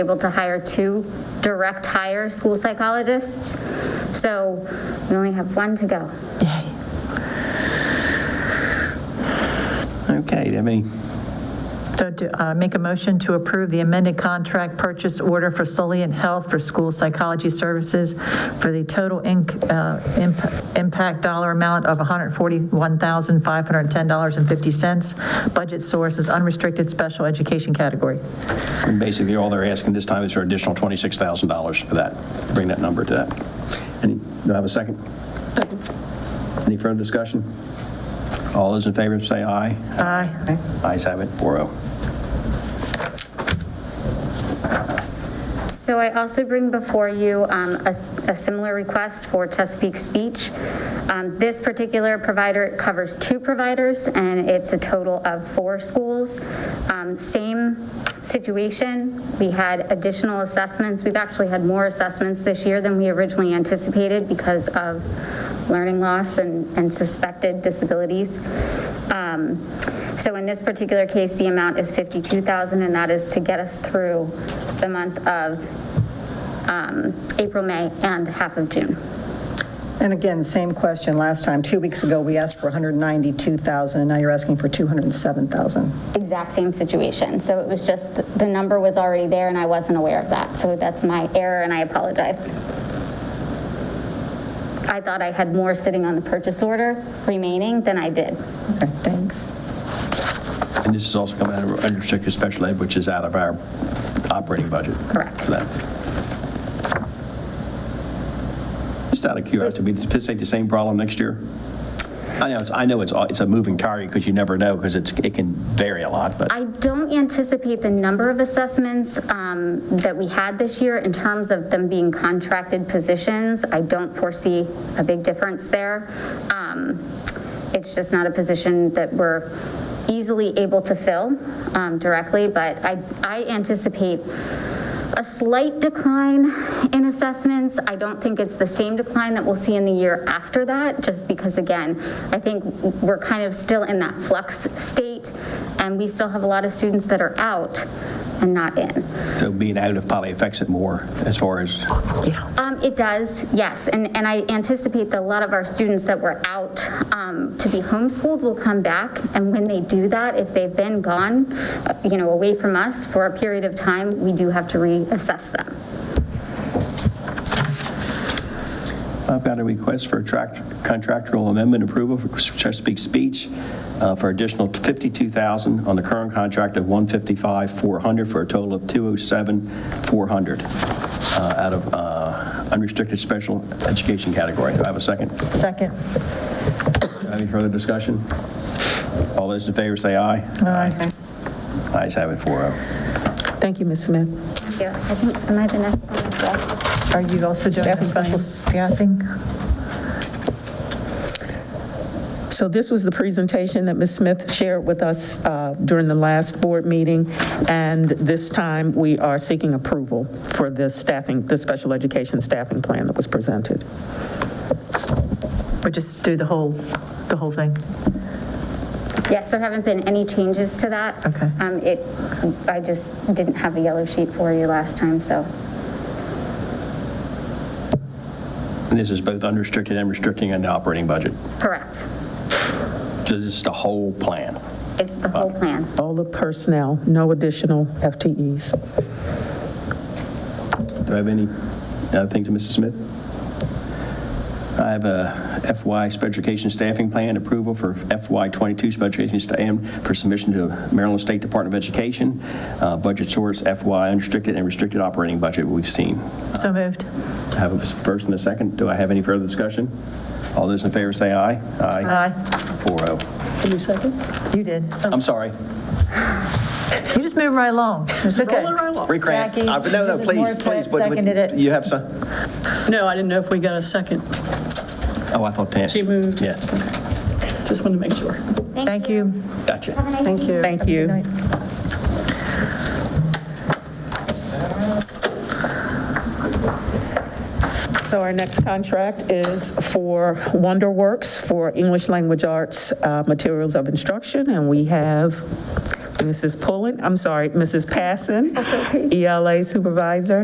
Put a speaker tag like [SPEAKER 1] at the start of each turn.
[SPEAKER 1] able to hire two direct hire school psychologists. So we only have one to go.
[SPEAKER 2] Okay, I mean,
[SPEAKER 3] So to uh, make a motion to approve the amended contract purchase order for Soliant Health for school psychology services for the total inc- uh, imp- impact dollar amount of $141,510.50. Budget source is unrestricted special education category.
[SPEAKER 2] basically, all they're asking this time is for additional $26,000 for that, bring that number to that. Any, do I have a second? Any further discussion? All those in favor, say aye.
[SPEAKER 3] Aye.
[SPEAKER 2] Ayes have it, oh. 4-0.
[SPEAKER 1] So I also bring before you um, a a similar request for Chesapeake Speech. Um, This particular provider covers two providers, and it's a total of four schools. Um, Same situation, we had additional assessments, we've actually had more assessments this year than we originally anticipated because of learning loss and and suspected disabilities. Um, So in this particular case, the amount is 52,000, and that is to get us through the month of um, April, May, and half of June.
[SPEAKER 4] And again, same question last time. Two weeks ago, we asked for 192,000, and now you're asking for 207,000.
[SPEAKER 1] Exact same situation. So it was just, th- the number was already there, and I wasn't aware of that. So that's my error, and I apologize. I thought I had more sitting on the purchase order remaining than I did.
[SPEAKER 4] Okay, thanks.
[SPEAKER 2] And this is also coming out of unrestricted special ed, which is out of our operating budget.
[SPEAKER 1] Correct.
[SPEAKER 2] For that. Just out of curiosity, we anticipate the same problem next year? I know, it's- I know it's, a- it's a moving target because you never know because it's, it can vary a lot, but.
[SPEAKER 1] I don't anticipate the number of assessments um, that we had this year in terms of them being contracted positions. I don't foresee a big difference there. Um, It's just not a position that we're easily able to fill um, directly, but I I anticipate a slight decline in assessments. I don't think it's the same decline that we'll see in the year after that, just because, again, I think we're kind of still in that flux state, and we still have a lot of students that are out and not in.
[SPEAKER 2] So being out of probably affects it more as far as,
[SPEAKER 1] Um, It does, yes, and, and I anticipate that a lot of our students that were out um, to be homeschooled will come back, and when they do that, if they've been gone, uh, you know, away from us for a period of time, we do have to reassess them.
[SPEAKER 2] I've got a request for a tract- contractual amendment approval for Chesapeake Speech uh, for additional 52000 on the current contract of 155400 for a total of 207400 uh, out of uh, unrestricted special education category. Do I have a second? Do
[SPEAKER 3] Second.
[SPEAKER 2] I have Any further discussion? All those in favor say aye. Aye. Ayes have it, oh. 4-0.
[SPEAKER 5] Thank you, Ms. Smith.
[SPEAKER 1] Thank you. I think, am I the next one as well?
[SPEAKER 3] Are you also doing a
[SPEAKER 5] Staffing
[SPEAKER 3] special
[SPEAKER 5] plan.
[SPEAKER 3] staffing?
[SPEAKER 5] So this was the presentation that Ms. Smith shared with us uh, during the last board meeting, and this time we are seeking approval for the staffing, the special education staffing plan that was presented.
[SPEAKER 3] Or just do the whole, the whole thing?
[SPEAKER 1] Yes, there haven't been any changes to that.
[SPEAKER 3] Okay.
[SPEAKER 1] Um, It, I just didn't have a yellow sheet for you last time, so.
[SPEAKER 2] And this is both unrestricted and restricting and operating budget.
[SPEAKER 1] Correct.
[SPEAKER 2] So this is the whole plan.
[SPEAKER 1] It's the whole plan.
[SPEAKER 5] All the personnel, no additional FTEs.
[SPEAKER 2] Do I have any other things, Mrs. Smith? I have a FY Special Education Staffing Plan approval for FY '22 Special Education Staff for submission to Maryland State Department of Education. Uh, Budget source FY unrestricted and restricted operating budget we've seen.
[SPEAKER 3] So moved.
[SPEAKER 2] I have a first and a second. Do I have any further discussion? All those in favor say aye.
[SPEAKER 3] Aye.
[SPEAKER 2] 4-0.
[SPEAKER 5] Can you second?
[SPEAKER 3] You did.
[SPEAKER 2] I'm sorry.
[SPEAKER 3] You just moved right along. It's okay.
[SPEAKER 2] Recant.
[SPEAKER 3] Jackie,
[SPEAKER 2] Uh, No, no,
[SPEAKER 3] Mrs.
[SPEAKER 2] please,
[SPEAKER 3] Morissette
[SPEAKER 2] please. What- what-
[SPEAKER 3] seconded it.
[SPEAKER 2] You have some?
[SPEAKER 6] No, I didn't know if we got a second.
[SPEAKER 2] Oh, I thought Tam.
[SPEAKER 6] She moved.
[SPEAKER 2] Yeah,
[SPEAKER 6] Just wanted to make sure.
[SPEAKER 3] Thank you.
[SPEAKER 2] gotcha.
[SPEAKER 4] Thank you.
[SPEAKER 5] Thank you. So our next contract is for WonderWorks for English Language Arts uh, Materials of Instruction, and we have Mrs. Pullen, I'm sorry, Mrs. Passon, ELA E Supervisor,